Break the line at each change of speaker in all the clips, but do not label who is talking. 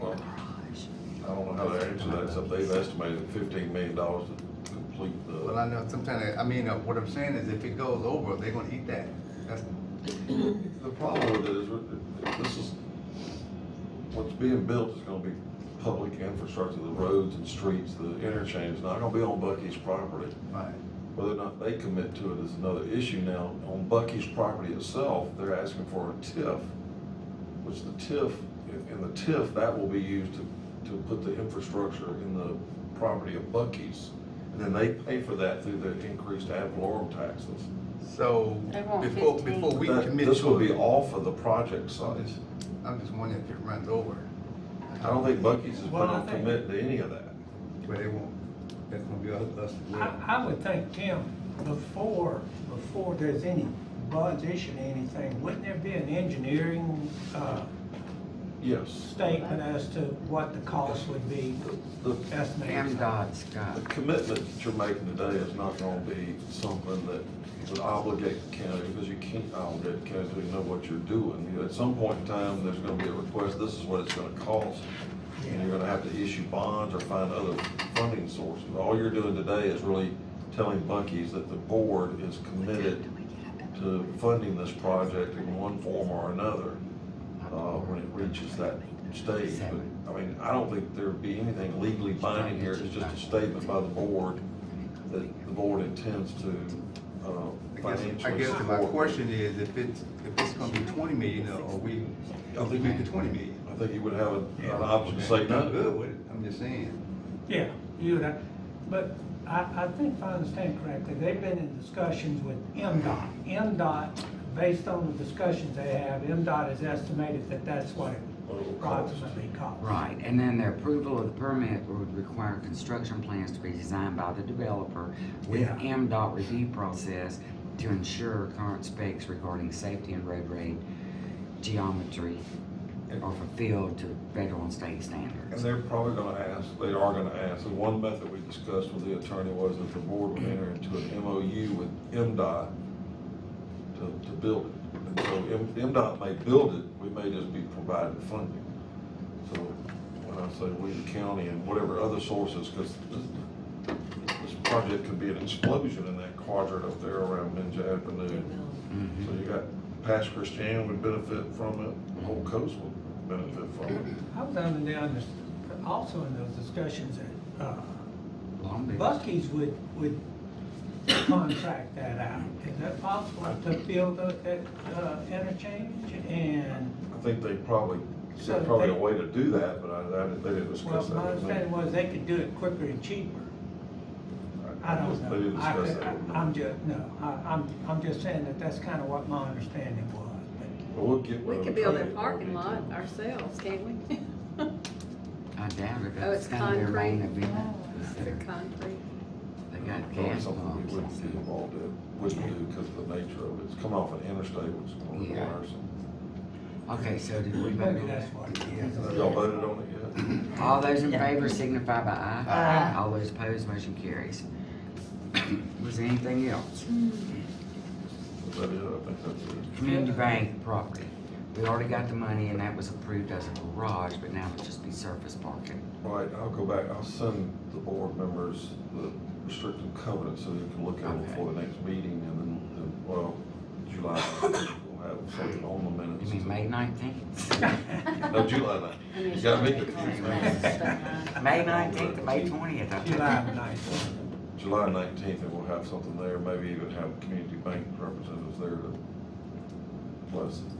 well, I don't know how they're into that, so they've estimated fifteen million dollars to complete the,
Well, I know sometimes, I mean, uh, what I'm saying is if it goes over, they're gonna eat that. That's,
the problem with it is, with- this is, what's being built is gonna be public infrastructure, the roads and streets, the interchange, not gonna be on Bucky's property.
right.
Whether or not they commit to it is another issue now. On Bucky's property itself, they're asking for a TIF, which the TIF, in the TIF, that will be used to, to put the infrastructure in the property of Bucky's. And then they pay for that through the increased ad valorem taxes.
So,
They want
before,
15.
before we
That-
commit
This will
to
be
it,
off of the project size.
I'm just wondering if it runs over.
I don't think Bucky's is
Well, I
gonna
think-
commit to any of that.
But it won't, that's gonna be us, us. to
I, I would think, Tim, before, before there's any bonds issued, or anything, wouldn't there be an engineering, uh,
Yes.
statement as to what the cost would be
The,
estimated?
MDOT, Scott.
The commitment that you're making today is not gonna be something that would obligate the county, because you can't obligate the county to know what you're doing. You know, At some point in time, there's gonna be a request, this is what it's gonna cost, and you're gonna have to issue bonds or find other funding sources. All you're doing today is really telling Bucky's that the board is committed to funding this project in one form or another, uh, when it reaches that stage. But, I mean, I don't think there'd be anything legally binding here, it's just a statement by the board that the board intends to,
I
uh,
guess, I
financially
guess
support.
my question is, if it's, if it's gonna be twenty million, or are we, are we making twenty million?
I think you Uh, would have an an option to say
I'm
no.
good with it, I'm just saying.
Yeah, you would, have- but I, I think if I understand correctly, they've been in discussions with MDOT. MDOT, based on the discussions they have, MDOT has estimated that that's what it
What it will cost.
approximately costs.
Right, and then the approval of the permit would require construction plans to be designed by the developer with
Yeah.
MDOT review process to ensure current specs regarding safety and road grade geometry are fulfilled to federal and state
And
standards.
they're probably gonna ask, they are gonna ask, and one method we discussed with the attorney was that the board would enter into an MOU with MDOT to, to build it. And so M- MDOT may build it, we may just be providing funding. So when I say we, the county and whatever other sources, because this, this project could be an explosion in that quadrant up there around Minja Avenue.
Mhm.
So you got past Christian would benefit from it, the whole coast would benefit from it.
I was under the, under- also in those discussions that, uh,
Long Beach.
Bucky's would, would contract that out. Is that possible to build the- that, uh, interchange and,
I think they probably,
So
there's probably a
they-
way to do that, but I, I didn't, they didn't
well,
discuss that.
my
with me.
understanding was they could do it quicker and cheaper. I don't know.
They didn't
I-
discuss that. with me.
I- I'm just, no, I, I'm, I'm just saying that that's kind of what my understanding was, but
But we'll get.
We
with
could
the
build a
trade
parking
more
lot
detail.
ourselves, can't we?
I doubt it,
Oh,
that's
it's
kind of their main
concrete. Oh,
event. is
The
their-
concrete.
They got
Probably
gas
Oh, Something we
pumps.
wouldn't be involved in, wouldn't do because of the nature of it. It's coming off an interstate, which is gonna
Yeah.
require some.
Okay, so did we vote
maybe
on
that's
that?
what it is.
Have Y'all voted on it yet?
All those in favor signify by aye.
Aye.
All those opposed, motion carries. Was there anything else?
Is that it? I think that's it.
Community bank property. We already got the money and that was approved as a garage, but now it'll just be surface parking.
All right, I'll go back. I'll send the board members the restrictive covenant so they can look at it
Okay.
before the next meeting and then, then, well, July, we'll have something on the minutes.
You mean May nineteenth?
No, July ninth.
I mean,
You got me
it's
confused,
concrete,
man.
but, uh,
May nineteenth to May twentieth, I
July
think.
ninth.
July nineteenth, and we'll have something there, maybe even have community bank representatives there to bless it.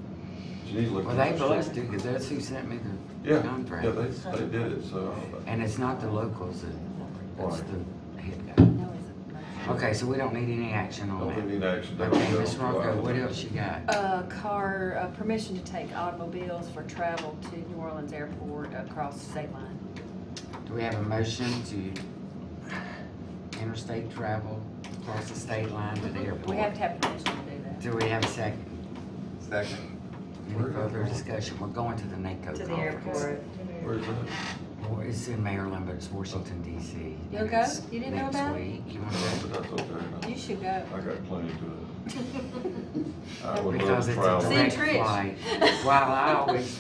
You need to look.
Well,
at
they
the
blessed
street.
it, cause that's who sent me the
Yeah, yeah,
contract.
they, they did it, so. uh,
And it's not the locals that, it's
Right.
the head guy.
no, it's a-
Okay, so we don't need any action on
Don't
that.
think we need action. They don't
Okay,
go
Ms.
July
Rocco, what
11th.
else you got?
Uh, car, uh, permission to take automobiles for travel to New Orleans Airport across the state line.
Do we have a motion to interstate travel across the state line to the
We have
airport?
to have permission to do that.
Do we have a second?
Second,
Any further discussion? We're going to the NACO conference.
To the airport.
Where's that?
Well, It's in Maryland, but it's Washington DC.
You'll
And
go?
it's
You didn't know
next
about it?
week. You wanna
But
go?
that's okay,
You should go.
I got plenty to do. I would love
Because
to
it's
travel.
a
See,
direct
Trish.
flight. While I always